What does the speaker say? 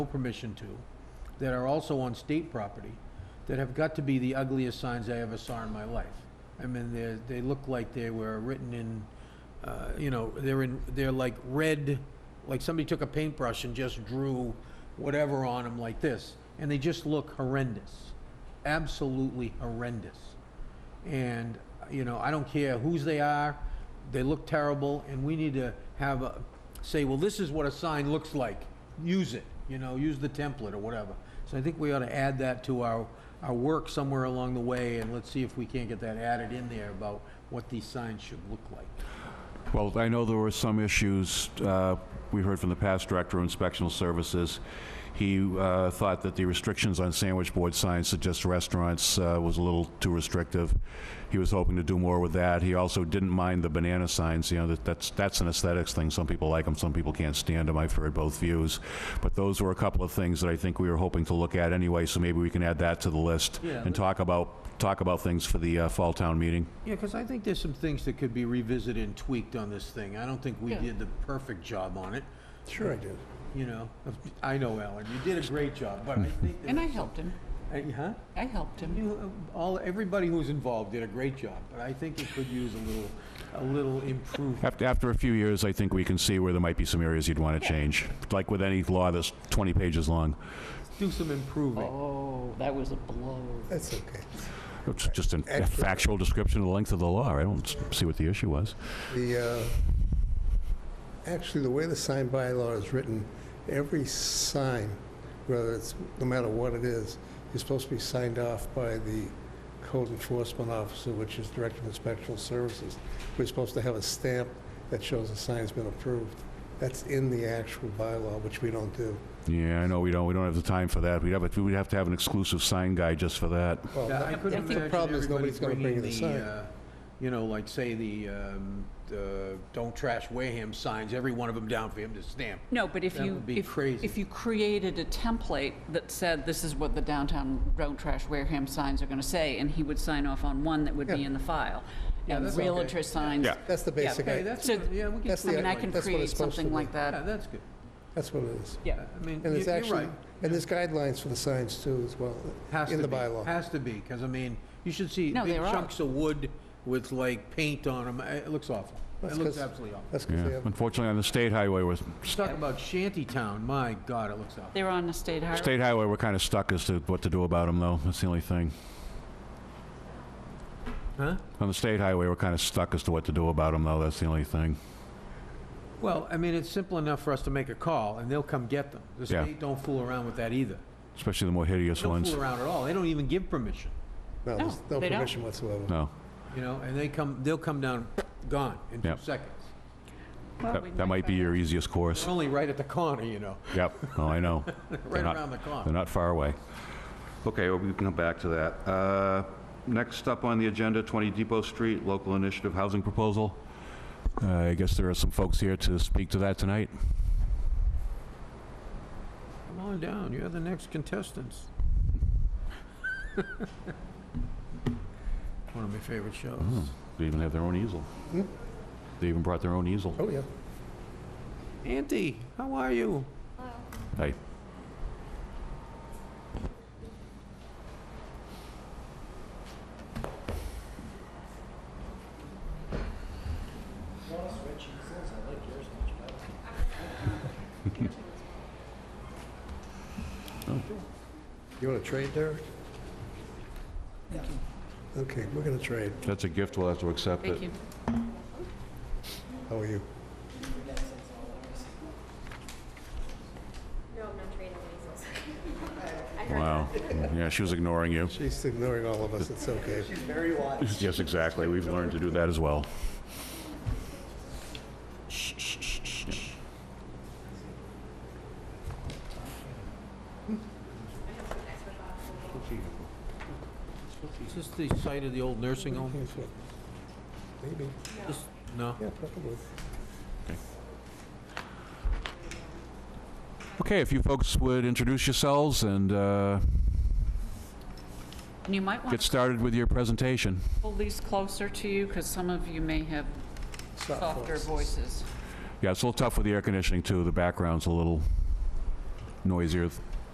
no permission to, that are also on state property, that have got to be the ugliest signs I ever saw in my life. I mean, they, they look like they were written in, uh, you know, they're in, they're like red, like somebody took a paintbrush and just drew whatever on them like this, and they just look horrendous, absolutely horrendous. And, you know, I don't care whose they are, they look terrible, and we need to have, a say, well, this is what a sign looks like, use it, you know, use the template or whatever. So I think we ought to add that to our, our work somewhere along the way, and let's see if we can't get that added in there about what these signs should look like. Well, I know there were some issues, uh, we heard from the past director of inspectional services. He uh, thought that the restrictions on sandwich board signs to just restaurants uh, was a little too restrictive. He was hoping to do more with that. He also didn't mind the banana signs, you know, that- that's, that's an aesthetics thing. Some people like them, some people can't stand them. I've heard both views. But those were a couple of things that I think we were hoping to look at anyway, so maybe we can add that to the list Yeah. and talk about, talk about things for the uh, fall town meeting. Yeah, because I think there's some things that could be revisited and tweaked on this thing. I don't think we did the perfect job on it, Sure I did. you know? I know, Alan, you did a great job, but I think. And I there's- helped him. Uh, Huh? I helped him. You, uh, all, everybody who's involved did a great job, but I think it could use a little, a little improvement. After, after a few years, I think we can see where there might be some areas you'd want to change, like with any law that's 20 pages long. Do some improving. Oh, that was a blow. That's okay. It's just an- a Excellent. factual description of the length of the law. I don't s- see what the issue was. The, uh, actually, the way the sign bylaw is written, every sign, whether it's, no matter what it is, is supposed to be signed off by the code enforcement officer, which is Director of Inspectional Services. We're supposed to have a stamp that shows the sign's been approved. That's in the actual bylaw, which we don't do. Yeah, I know, we don't, we don't have the time for that. We'd have, a- we'd have to have an exclusive sign guy just for that. Well, Yeah, I that- couldn't The problem is imagine everybody nobody's gonna bring bringing in the the, sign. uh, you know, like, say, the, um, the Don't Trash Wareham signs, every one of them down for him to stamp. No, but if That you, would be if, crazy. if you created a template that said, this is what the downtown Don't Trash Wareham signs are gonna say, and he would sign off on one that would be Yeah. in the file. And that's okay. realtor signs. Yeah. That's the basic, Hey, i- that's, So, yeah, we can, That's I the- mean, I can that's what create it's supposed to something be. like yeah, that. that's good. that's what it is. Yeah. I mean, And you- it's you're actually, right. and there's guidelines for the signs too, as well, Has in to the be. bylaw. Has to be, because, I mean, you should see No, big there are. chunks of wood with, like, paint on them. It looks awful. It That's looks 'cause- absolutely awful. That's 'cause they Yeah. have Unfortunately, on the state highway, we're, Talk about shantytown, my God, it looks awful. They're on the state highway. state highway, we're kind of stuck as to what to do about them, though. That's the only thing. Huh? On the state highway, we're kind of stuck as to what to do about them, though. That's the only thing. Well, I mean, it's simple enough for us to make a call, and they'll come get them. The Yeah. state don't fool around with that either. Especially the more hideous They don't ones. fool around at all. They don't even give permission, No, there's Oh, No, no they don't. permission whatsoever. No. you know, and they come, they'll come down, gone, in two Yep. seconds. Well, we That that might be your easiest course. They're only right at the corner, you know, Yep. Oh, I know. right They're not- around the They're corner. not far away. Okay, well, we can come back to that. Uh, Next up on the agenda, 20 Depot Street, local initiative housing proposal. Uh, I guess there are some folks here to speak to that tonight. Come on down, you're the next contestants. One of my favorite shows. They even have their own easel. They even brought their own easel. Oh, yeah. Auntie, how are you? Hey, You want to trade, Derek? Okay, we're going to trade. that's a gift, we'll have to accept Thank you. it. How are you? No, I'm not trading measles. I heard Wow. Yeah, she was ignoring you. She's ignoring all of us, it's okay. Yes, exactly, we've learned to do that as well. Is this the site of the old nursing home? Maybe, This- No? yeah, probably. Okay, if you folks would introduce yourselves and uh, And you might want get to started with your presentation. pull these closer to you, because some of you may have softer voices. Yeah, it's a little tough with the air conditioning, too. The background's a little noisier